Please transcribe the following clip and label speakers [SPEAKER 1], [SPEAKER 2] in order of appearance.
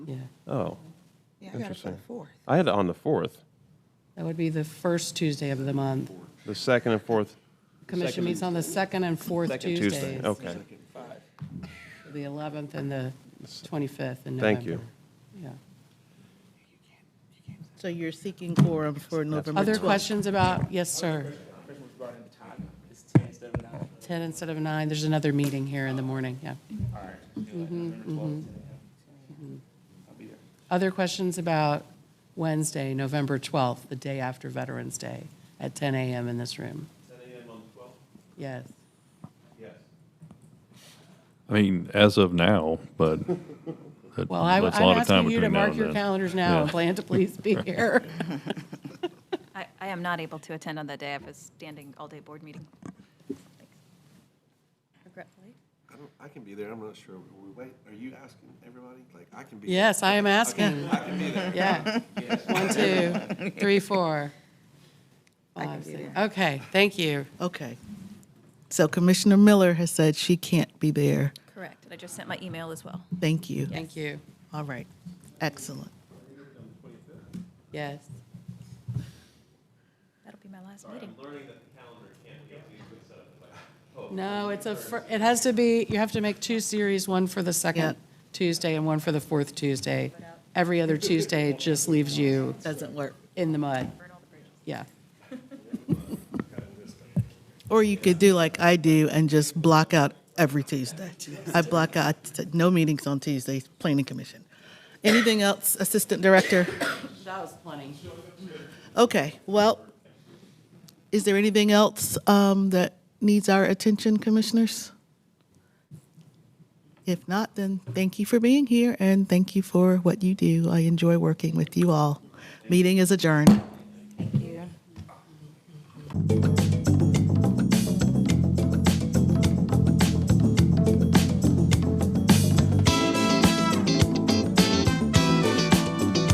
[SPEAKER 1] Yeah,
[SPEAKER 2] Oh, got
[SPEAKER 3] Yeah,
[SPEAKER 2] it for the Interesting.
[SPEAKER 3] fourth.
[SPEAKER 2] I had it on the 4th,
[SPEAKER 1] that would be the first Tuesday of the month.
[SPEAKER 2] the 2nd and 4th.
[SPEAKER 1] Commission meets on the second and fourth
[SPEAKER 2] Second Tuesday,
[SPEAKER 1] Tuesdays.
[SPEAKER 2] okay.
[SPEAKER 1] The 11th and the 25th in November.
[SPEAKER 2] Thank you.
[SPEAKER 1] Yeah.
[SPEAKER 3] So you're seeking quorum for November
[SPEAKER 1] Other
[SPEAKER 3] 12th?
[SPEAKER 1] questions about, yes, sir? 10 instead of 9, there's another meeting here in the morning, yeah. Other questions about Wednesday, November 12th, the day after Veterans Day, at 10 a.m. in this room? 10 a.m. on the 12th? Yes.
[SPEAKER 4] I mean, as of now, but that-
[SPEAKER 1] Well, I-
[SPEAKER 4] that's a
[SPEAKER 1] I'm
[SPEAKER 4] lot of time
[SPEAKER 1] asking you to
[SPEAKER 4] between now
[SPEAKER 1] mark
[SPEAKER 4] and
[SPEAKER 1] your
[SPEAKER 4] then.
[SPEAKER 1] calendars now and
[SPEAKER 4] Yeah.
[SPEAKER 1] plan to please be here.
[SPEAKER 5] I, I am not able to attend on that day. I have a standing all-day board meeting. Regretfully.
[SPEAKER 6] I don't, I can be there, I'm not sure, we wait, are you asking everybody? Like, I can be. there.
[SPEAKER 1] Yes, I am asking.
[SPEAKER 6] I can be there.
[SPEAKER 1] Yeah. One, two, three, four. five, six. Okay, thank you.
[SPEAKER 3] Okay. So Commissioner Miller has said she can't be there.
[SPEAKER 5] Correct. And I just sent my email as well.
[SPEAKER 3] Thank you.
[SPEAKER 1] Thank you.
[SPEAKER 3] All right. Excellent.
[SPEAKER 1] Yes.
[SPEAKER 5] That'll be my last meeting.
[SPEAKER 1] No, it's a, fir- it has to be, you have to make two series, one for the
[SPEAKER 3] Yeah.
[SPEAKER 1] second Tuesday and one for the fourth Tuesday. Every other Tuesday just leaves you
[SPEAKER 3] Doesn't work.
[SPEAKER 1] in the mud. Yeah.
[SPEAKER 3] Or you could do like I do and just block out every Tuesday. I block out, no meetings on Tuesdays, Planning Commission. Anything else, Assistant Director?
[SPEAKER 1] That was plenty.
[SPEAKER 3] Okay, well, is there anything else um, that needs our attention, commissioners? If not, then thank you for being here and thank you for what you do. I enjoy working with you all. Meeting is adjourned.